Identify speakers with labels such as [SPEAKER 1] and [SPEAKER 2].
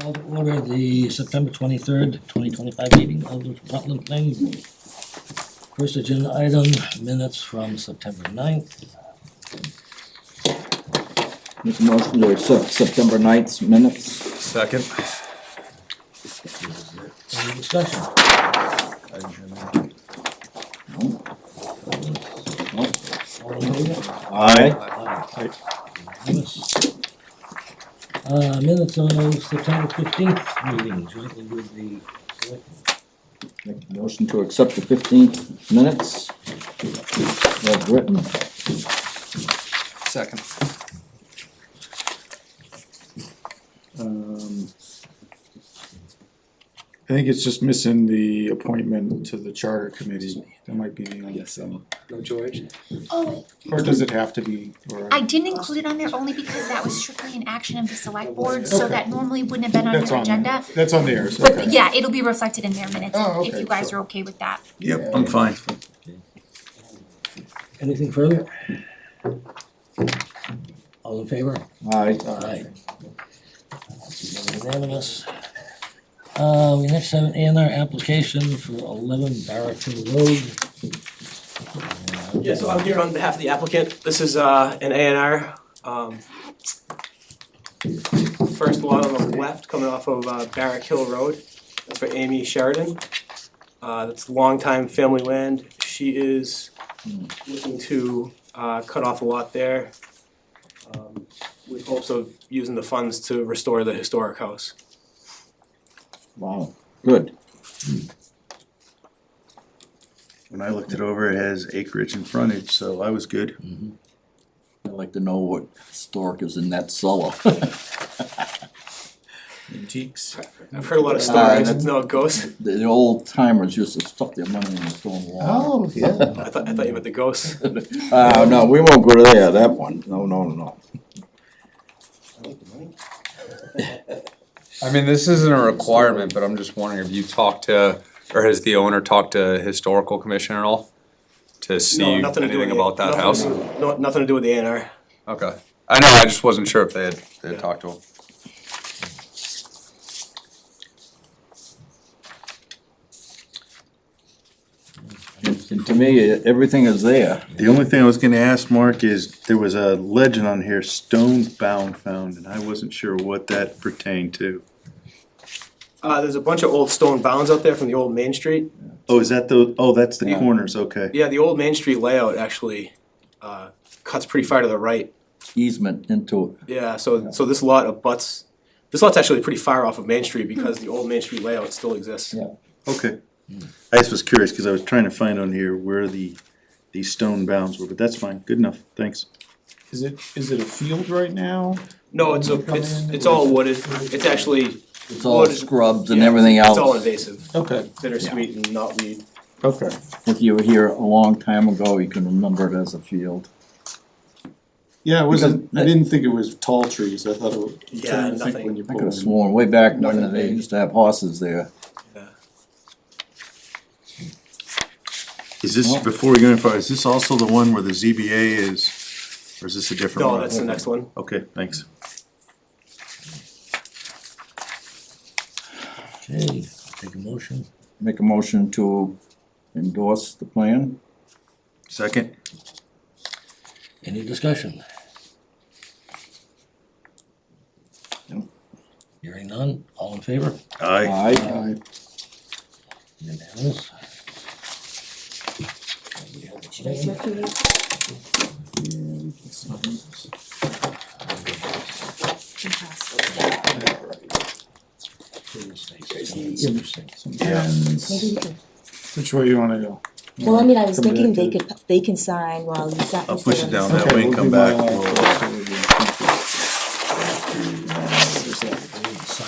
[SPEAKER 1] Call to order the September twenty-third, twenty twenty-five meeting of the Rutland Planning Board. First agenda item, minutes from September 9th.
[SPEAKER 2] Make a motion to accept September 9th minutes.
[SPEAKER 3] Second.
[SPEAKER 1] Any discussion? All in favor?
[SPEAKER 2] Aye.
[SPEAKER 1] Aye. Unanimous. Uh, minutes of September fifteenth meeting jointly with the selectmen.
[SPEAKER 2] Make a motion to accept the fifteenth minutes. As written.
[SPEAKER 3] Second.
[SPEAKER 4] Um, I think it's just missing the appointment to the charter committee, that might be the only thing.
[SPEAKER 3] No George?
[SPEAKER 5] Oh,
[SPEAKER 4] Or does it have to be, or?
[SPEAKER 5] I didn't include it on there only because that was strictly an action of the select board, so
[SPEAKER 4] Okay.
[SPEAKER 5] that normally wouldn't have been on
[SPEAKER 4] That's
[SPEAKER 5] your
[SPEAKER 4] on,
[SPEAKER 5] agenda.
[SPEAKER 4] that's on there, so.
[SPEAKER 5] But yeah, it'll be reflected in their minutes
[SPEAKER 4] Oh,
[SPEAKER 5] if
[SPEAKER 4] okay,
[SPEAKER 5] you guys
[SPEAKER 4] sure.
[SPEAKER 5] are okay with that.
[SPEAKER 3] Yep, I'm fine.
[SPEAKER 1] Anything further? All in favor?
[SPEAKER 2] Aye.
[SPEAKER 1] Aye. Unanimous. Uh, we next have an A and R application for eleven Barrington Road.
[SPEAKER 6] Yeah, so I'm here on behalf of the applicant. This is uh an A and R. Um first lot on the left coming off of uh Barrack Hill Road. That's for Amy Sheridan. Uh that's longtime family land. She is looking to uh cut off a lot there. Um with hopes of using the funds to restore the historic house.
[SPEAKER 2] Wow, good.
[SPEAKER 7] When I looked it over, it has acreage and frontage, so I was good.
[SPEAKER 2] I'd like to know what stork is in that cellar.
[SPEAKER 3] Antiques.
[SPEAKER 6] I've heard a lot of
[SPEAKER 2] Uh,
[SPEAKER 6] stories. No, ghosts.
[SPEAKER 2] The the old timers used to stuff their money in the stone wall.
[SPEAKER 4] Oh, yeah.
[SPEAKER 6] I thought I thought you meant the ghosts.
[SPEAKER 2] Uh, no, we won't go there, that one, no, no, no.
[SPEAKER 8] I mean, this isn't a requirement, but I'm just wondering if you talked to, or has the owner talked to historical commission at all? To
[SPEAKER 6] No,
[SPEAKER 8] see
[SPEAKER 6] nothing to do with
[SPEAKER 8] anything
[SPEAKER 6] the-
[SPEAKER 8] about that
[SPEAKER 6] nothing to
[SPEAKER 8] house?
[SPEAKER 6] do- No, nothing to do with the A and R.
[SPEAKER 8] Okay, I know, I just wasn't sure if they had, they
[SPEAKER 6] Yeah.
[SPEAKER 8] had talked to him.
[SPEAKER 2] And to me, e- everything is there.
[SPEAKER 7] The only thing I was gonna ask Mark is, there was a legend on here, stone bound found, and I wasn't sure what that pertained to.
[SPEAKER 6] Uh, there's a bunch of old stone bounds out there from the old Main Street.
[SPEAKER 7] Oh, is that the, oh, that's the
[SPEAKER 2] Yeah.
[SPEAKER 7] corners, okay.
[SPEAKER 6] Yeah, the old Main Street layout actually uh, cuts pretty far to the right.
[SPEAKER 2] Easement into it.
[SPEAKER 6] Yeah, so so this lot abuts. This lot's actually pretty far off of Main Street because the old Main Street layout still exists.
[SPEAKER 2] Yeah.
[SPEAKER 7] Okay. I just was curious, cause I was trying to find on here where the, the stone bounds were, but that's fine, good enough, thanks.
[SPEAKER 4] Is it, is it a field right now?
[SPEAKER 6] No, it's a, it's it's all wooded. It's actually
[SPEAKER 2] It's all
[SPEAKER 6] wooded-
[SPEAKER 2] scrubs and
[SPEAKER 6] yeah,
[SPEAKER 2] everything
[SPEAKER 6] it's-
[SPEAKER 2] else.
[SPEAKER 6] It's all invasive,
[SPEAKER 4] Okay,
[SPEAKER 6] bittersweet and not weed.
[SPEAKER 4] okay.
[SPEAKER 2] If you were here a long time ago, you can remember it as a field.
[SPEAKER 4] Yeah, it wasn't, I didn't think it was tall trees, I thought it was. I'm
[SPEAKER 6] Yeah,
[SPEAKER 4] trying to think
[SPEAKER 6] nothing.
[SPEAKER 4] when you
[SPEAKER 2] I
[SPEAKER 4] pull
[SPEAKER 2] could have
[SPEAKER 4] in.
[SPEAKER 2] sworn way back when
[SPEAKER 4] Nothing
[SPEAKER 2] they
[SPEAKER 4] big.
[SPEAKER 2] used to have horses there.
[SPEAKER 7] Is this, before we go any further, is this also the one where the ZBA is, or is this a different one?
[SPEAKER 6] No, that's the next one.
[SPEAKER 7] Okay, thanks.
[SPEAKER 1] Okay, take a motion.
[SPEAKER 2] Make a motion to endorse the plan.
[SPEAKER 7] Second?
[SPEAKER 1] Any discussion?
[SPEAKER 2] No.
[SPEAKER 1] Hearing none, all in favor?
[SPEAKER 7] Aye.
[SPEAKER 2] Aye.
[SPEAKER 1] Unanimous.
[SPEAKER 9] Maybe, we could-
[SPEAKER 4] Which way you wanna go?
[SPEAKER 9] well, I mean, I was
[SPEAKER 4] Come back
[SPEAKER 9] thinking
[SPEAKER 4] to
[SPEAKER 9] they
[SPEAKER 4] it.
[SPEAKER 9] could, they can sign while you sign.
[SPEAKER 7] I'll push it down
[SPEAKER 4] Okay,
[SPEAKER 7] that way and
[SPEAKER 4] we'll
[SPEAKER 7] come
[SPEAKER 4] do my
[SPEAKER 7] back.
[SPEAKER 4] line first, so we do-